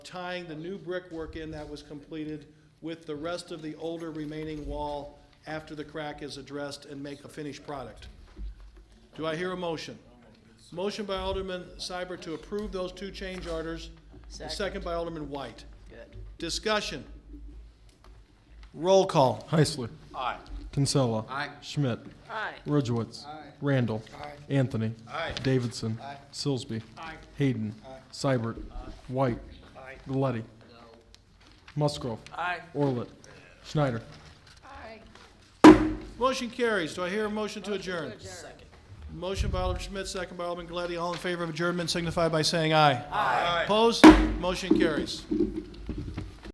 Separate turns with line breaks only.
tying the new brickwork in that was completed with the rest of the older remaining wall after the crack is addressed and make a finished product. Do I hear a motion? Motion by Alderman Seibert to approve those two change orders, and second by Alderman White.
Good.
Discussion. Roll call.
Heisler.
Aye.
Kinsella.
Aye.
Schmidt.
Aye.
Ridgewitz. Randall. Anthony. Davidson. Silsby. Hayden. Seibert. White. Aye. Galetti. Musgrove.
Aye.
Orlett. Schneider.
Motion carries. Do I hear a motion to adjourn? Motion by Alderman Schmidt, second by Alderman Glady. All in favor of adjournment signify by saying aye. Aye. Opposed? Motion carries.